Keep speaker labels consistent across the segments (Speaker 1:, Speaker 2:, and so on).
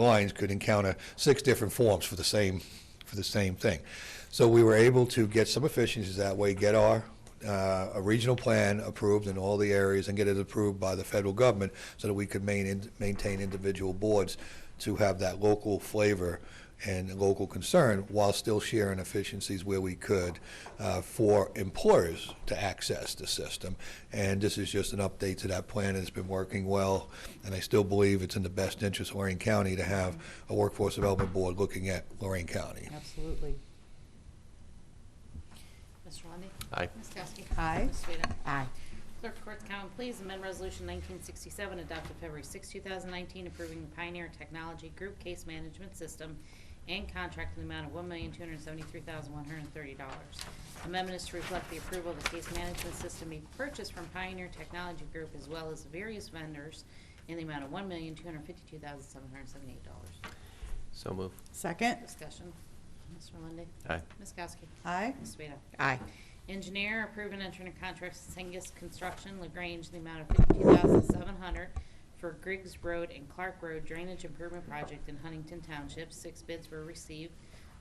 Speaker 1: lines could encounter six different forms for the same, for the same thing. So we were able to get some efficiencies that way, get our, uh, a regional plan approved in all the areas and get it approved by the federal government so that we could main, maintain individual boards to have that local flavor and local concern while still sharing efficiencies where we could uh, for employers to access the system. And this is just an update to that plan. It's been working well, and I still believe it's in the best interest of Lorraine County to have a workforce development board looking at Lorraine County.
Speaker 2: Absolutely.
Speaker 3: Mr. Lundy.
Speaker 4: Aye.
Speaker 3: Ms. Kowski.
Speaker 2: Aye.
Speaker 3: Ms. Swita.
Speaker 2: Aye.
Speaker 3: Clerk, court's comment, please. Amend Resolution 1967, adopted February 6, 2019, approving the Pioneer Technology Group Case Management System and contract in the amount of $1,273,130. Amendment is to reflect the approval of the case management system being purchased from Pioneer Technology Group as well as various vendors in the amount of $1,252,778.
Speaker 4: So move.
Speaker 2: Second?
Speaker 3: Discussion. Mr. Lundy.
Speaker 4: Aye.
Speaker 3: Ms. Kowski.
Speaker 2: Aye.
Speaker 3: Ms. Swita.
Speaker 2: Aye.
Speaker 3: Engineer, approve and enter into contract with Sengus Construction, LaGrange, in the amount of fifty-two thousand seven hundred for Griggs Road and Clark Road Drainage Improvement Project in Huntington Township. Six bids were received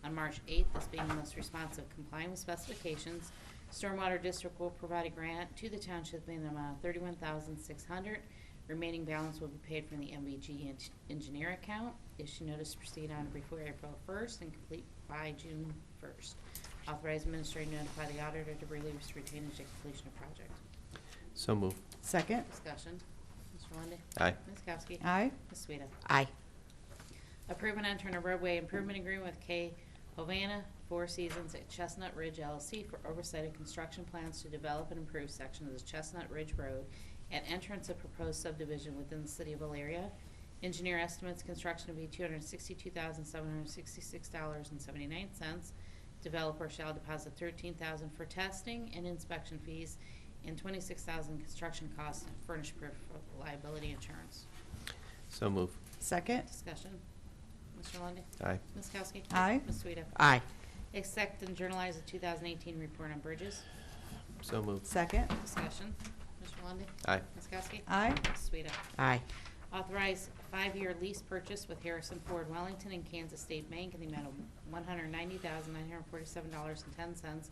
Speaker 3: on March eighth, this being the most responsive complying with specifications. Stormwater District will provide a grant to the township in the amount of thirty-one thousand six hundred. Remaining balance will be paid from the MVG en- engineer account. Issue notice to proceed on before April first and complete by June first. Authorize administrator to notify the auditor to release retainage at completion of project.
Speaker 4: So move.
Speaker 2: Second?
Speaker 3: Discussion. Mr. Lundey.
Speaker 4: Aye.
Speaker 3: Ms. Kowski.
Speaker 2: Aye.
Speaker 3: Ms. Sueda.
Speaker 2: Aye.
Speaker 3: Approve and enter in a roadway improvement agreement with K. Havana Four Seasons at Chestnut Ridge LLC for oversight of construction plans to develop and improve section of the Chestnut Ridge Road at entrance of proposed subdivision within the city of Valeria. Engineer estimates construction to be two hundred sixty-two thousand, seven hundred sixty-six dollars and seventy-nine cents. Developer shall deposit thirteen thousand for testing and inspection fees and twenty-six thousand construction costs and furnish proof of liability insurance.
Speaker 4: So move.
Speaker 2: Second?
Speaker 3: Discussion. Mr. Lundey.
Speaker 4: Aye.
Speaker 3: Ms. Kowski.
Speaker 2: Aye.
Speaker 3: Ms. Sueda.
Speaker 2: Aye.
Speaker 3: Accept and journalize the 2018 report on bridges.
Speaker 4: So move.
Speaker 2: Second?
Speaker 3: Discussion. Mr. Lundey.
Speaker 4: Aye.
Speaker 3: Ms. Kowski.
Speaker 2: Aye.
Speaker 3: Ms. Sueda.
Speaker 2: Aye.
Speaker 3: Authorize five-year lease purchase with Harrison Ford Wellington and Kansas State Bank in the amount of $190,947.10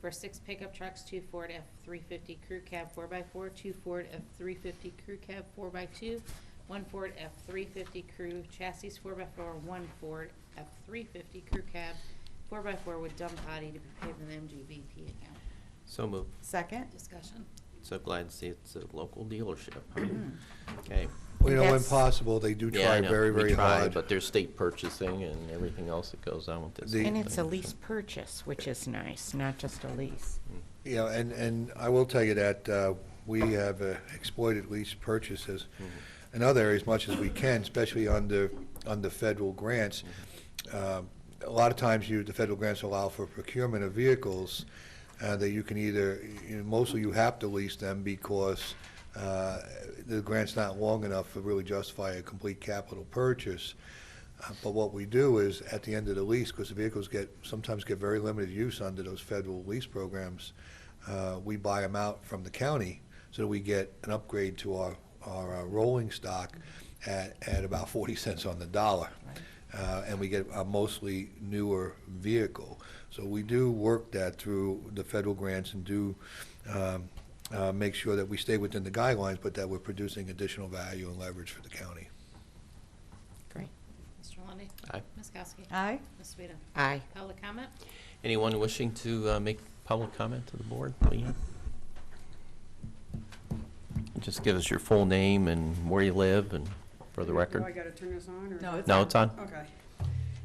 Speaker 3: for six pickup trucks, two Ford F-350 Crew Cab 4x4, two Ford F-350 Crew Cab 4x2, one Ford F-350 Crew Chassis 4x4, one Ford F-350 Crew Cab 4x4 with dump body to be paid from the MGVP account.
Speaker 4: So move.
Speaker 2: Second?
Speaker 3: Discussion.
Speaker 4: So glad to see it's a local dealership. Okay.
Speaker 1: Well, you know, when
Speaker 2: Yes.
Speaker 1: possible, they do
Speaker 4: Yeah, I
Speaker 1: try
Speaker 4: know.
Speaker 1: very,
Speaker 4: We
Speaker 1: very
Speaker 4: try,
Speaker 1: hard.
Speaker 4: But there's state purchasing and everything else that goes on with this.
Speaker 1: The-
Speaker 5: And
Speaker 4: whole
Speaker 5: it's a
Speaker 4: thing, so-
Speaker 5: lease purchase, which is nice, not just a lease.
Speaker 4: Mm-hmm.
Speaker 1: You know, and, and I will tell you that uh, we have uh, exploited lease purchases in other areas much as we can, especially under, under federal grants. Um, A lot of times you, the federal grants allow for procurement of vehicles uh, that you can either, you know, mostly you have to lease them because uh, the grant's not long enough to really justify a complete capital purchase. Uh, But what we do is, at the end of the lease, because the vehicles get, sometimes get very limited use under those federal lease programs, uh, we buy them out from the county so that we get an upgrade to our, our uh, rolling stock at, at about 40 cents on the dollar. Uh, And we get a mostly newer vehicle. So we do work that through the federal grants and do um, uh, make sure that we stay within the guidelines, but that we're producing additional value and leverage for the county.
Speaker 5: Great.
Speaker 3: Mr. Lundey.
Speaker 4: Aye.
Speaker 3: Ms. Kowski.
Speaker 2: Aye.
Speaker 3: Ms. Sueda.
Speaker 5: Aye.
Speaker 3: Public comment?
Speaker 4: Anyone wishing to uh, make public comment to the board, Leanne? Just give us your full name and where you live and for the
Speaker 6: Do I
Speaker 4: record.
Speaker 6: gotta turn this on, or?
Speaker 2: No, it's-
Speaker 4: No, it's on?
Speaker 6: Okay.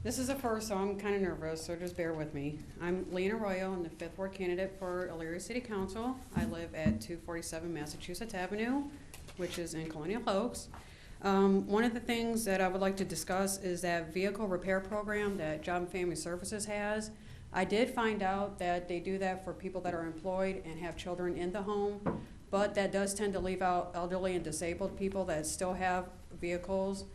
Speaker 6: This is a first, so I'm kinda nervous, so just bear with me. I'm Lena Arroyo, I'm the fifth ward candidate for Elyria City Council. I live at two forty-seven Massachusetts Avenue, which is in Colonial Oaks. Um, one of the things that I would like to discuss is that vehicle repair program that Job and Family Services has. I did find out that they do that for people that are employed and have children in the home, but that does tend to leave out elderly and disabled people that still have vehicles.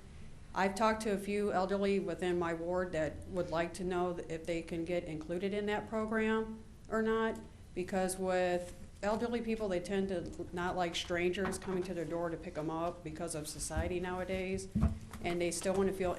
Speaker 6: I've talked to a few elderly within my ward that would like to know if they can get included in that program or not, because with elderly people, they tend to not like strangers coming to their door to pick them up because of society nowadays, and they still want to feel